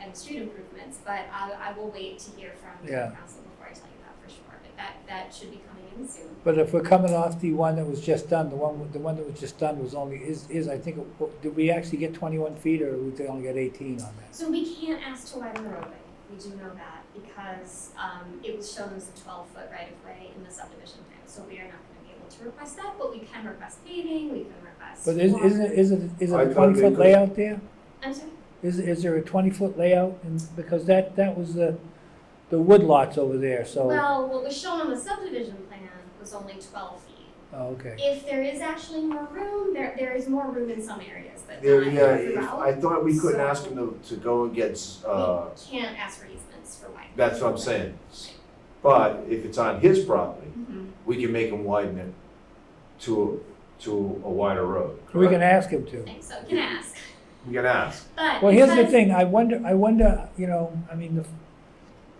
and street improvements, but I, I will wait to hear from the Yeah. council before I tell you that for sure. But that, that should be coming in soon. But if we're coming off the one that was just done, the one, the one that was just done was only, is, is, I think, did we actually get twenty-one feet or we only got eighteen on that? So we can't ask to widen the roadway, we do know that, because, um, it was shown as a twelve foot right of way in the subdivision plan. So we are not gonna be able to request that, but we can request paving, we can request. But is, walk- isn't, it- is it, is it I a thought they twenty-foot could- layout there? I'm sorry, Is, is there a twenty-foot layout? And, because that, that was the, the wood lots over there, so, well, what was shown on the subdivision plan was only twelve feet. oh, okay. If there is actually more room, there, there is more room in some areas, but There, not yeah, if- throughout. I thought we couldn't So- ask them to, to go against, uh, We can't ask for easements for widening. that's what I'm saying. But if it's on his property, Mhm. we can make him widen it to, to a wider road. We correct? can ask him to. I think so, can ask, We can ask. but. Well, here's the because- thing, I wonder, I wonder, you know, I mean, the,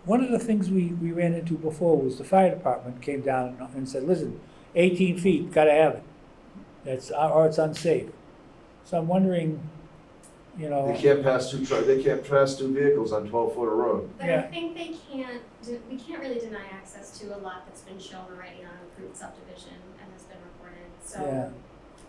one of the things we, we ran into before was the fire department came down and- and said, listen, eighteen feet, gotta have it. That's, or it's unsafe. So I'm wondering, you They know, can't pass two, tr- they can't pass two vehicles on twelve foot of road. But I Yeah. think they can't, de- we can't really deny access to a lot that's been shown already on approved subdivision and has been recorded, Yeah. so.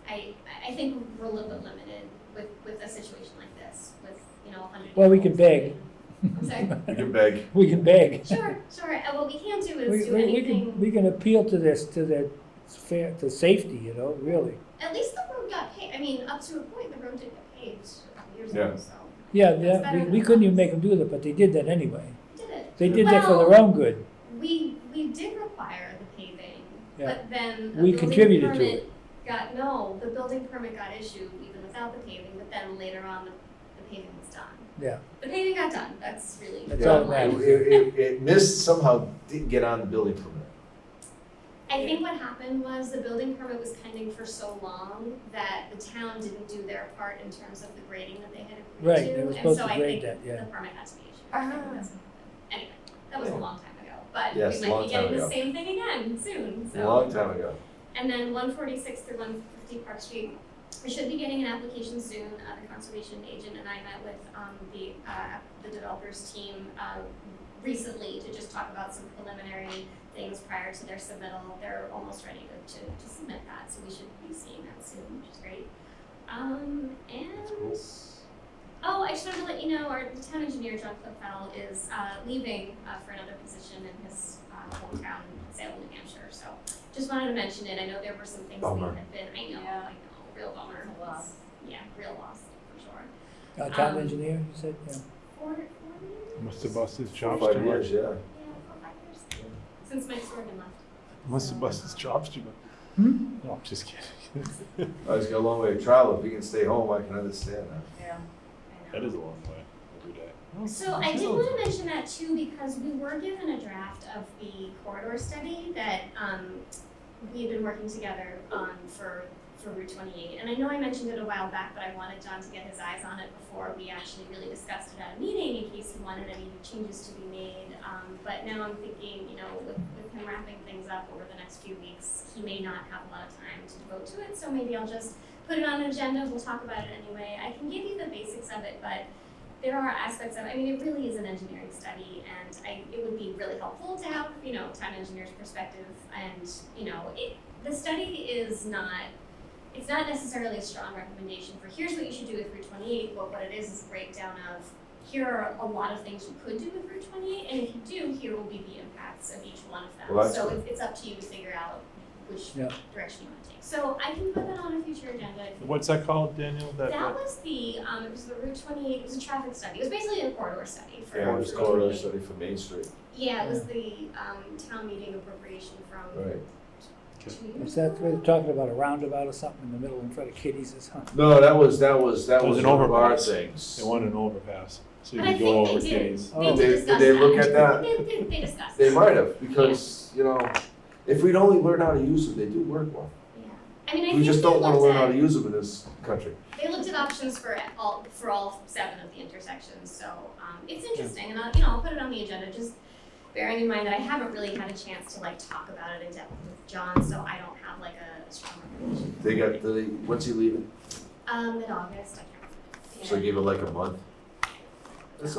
I, I- I think we're a little bit limited with, with a situation like this, with, you know, a hundred. Well, we can vehicles. I'm sorry, We can beg. we can beg. sure, sure, and what we can do We, is do we- we can, anything, we can appeal to this, to the fair, to safety, you know, really. at least the road got paved, I mean, up to a point, the road did get paved a couple years Yeah. ago, so. Yeah, That's yeah, better we, than we couldn't nothing. even make them do that, but they did that anyway. Did it. They did that for their Well- own good. We, we did require the paving, Yeah. but then the We building contributed to permit got, no, the building permit got issued even without the paving, but then later on, the, the paving was done. Yeah. The paving got done, that's really. That's the all bottom that It, line. matters. it, it missed somehow, didn't get on the building permit. I think what happened was the building permit was pending for so long that the town didn't do their part in terms of the grading that they had Right, they agreed were to, and supposed so to I grade think that, yeah. the permit had to be issued. I think that's what happened. Anyway, that was a Yeah. long time ago, but Yes, we might long be time getting the ago. same thing again soon, so. A long time ago. And then one forty-six through one fifty Park Street, we should be getting an application soon, uh, the conservation agent and I met with, um, the, uh, the developers team, uh, recently to just talk about some preliminary things prior to their submittal, they're almost ready to, to, to submit that, so we should be seeing that soon, which is great. Um, and, oh, I just wanted to let you know, our, the town engineer, John Clipfell, is, uh, leaving, uh, for another position in his, uh, hometown, Salem, New Hampshire, so just wanted to mention it, I know there were some things we Bummer. had been, I know, Yeah. I know, real bummer. It's a loss. Yeah, real loss, for sure. Uh, town Um, engineer, you said, yeah. Four, four years? Must have busted his chops Five too much. years, yeah. Yeah, four, five years, since Mike Sorgan left. Must have busted his chops too much. Hmm? No, I'm just kidding. I was Oh, got a long way to travel. If he can stay home, I can understand that. Yeah. I know. a long way every day. So I did want to mention that too, because we were given a draft of the corridor study that, um, we had been working together on for, for Route twenty-eight. And I know I mentioned it a while back, but I wanted John to get his eyes on it before we actually really discussed it at a meeting in case he wanted any changes to be made. Um, but now I'm thinking, you know, with, with him wrapping things up over the next few weeks, he may not have a lot of time to devote to it. So maybe I'll just put it on an agenda, we'll talk about it anyway. I can give you the basics of it, but there are aspects of, I mean, it really is an engineering study, and I, it would be really helpful to have, you know, town engineer's perspective, and, you know, it, the study is not, it's not necessarily a strong recommendation for here's what you should do with Route twenty-eight, but what it is is a breakdown of, here are a lot of things you could do with Route twenty-eight, and if you do, here will be the impacts of each one of them. Well, that's So good. it's, it's up to you to figure out which Yeah. direction you wanna take. So I can put that on a future agenda if you What's that called, Daniel? That, that was the, um, it was the Route twenty-eight, it was a traffic study, it was basically a corridor study for. Yeah, it's for corridor 28. study for Main Street. Yeah, it was the, um, town meeting appropriation from Right. two years ago. Is that, we're talking about a roundabout or something in the middle in front of Kitty's or something? No, that was, that was, that It was was an one of our overpass. things. they want an overpass, so you But I can go think over they did, days. they Oh. did Did- discuss that. did they look at that? They, they, they discussed. They it. might have, because, you know, if we'd only learn how to use them, they do work well. Yeah, I mean, I think We just they don't wanna looked learn how at- to use them in this country. They looked at options for all, for all seven of the intersections, so, um, it's interesting, and I'll, you know, I'll put it on the agenda, just bearing in mind that I haven't really had a chance to like talk about it in depth with John, so I don't have like a strong recommendation. They got the, when's he leaving? Um, in August, I can't remember. So give it like a month. That's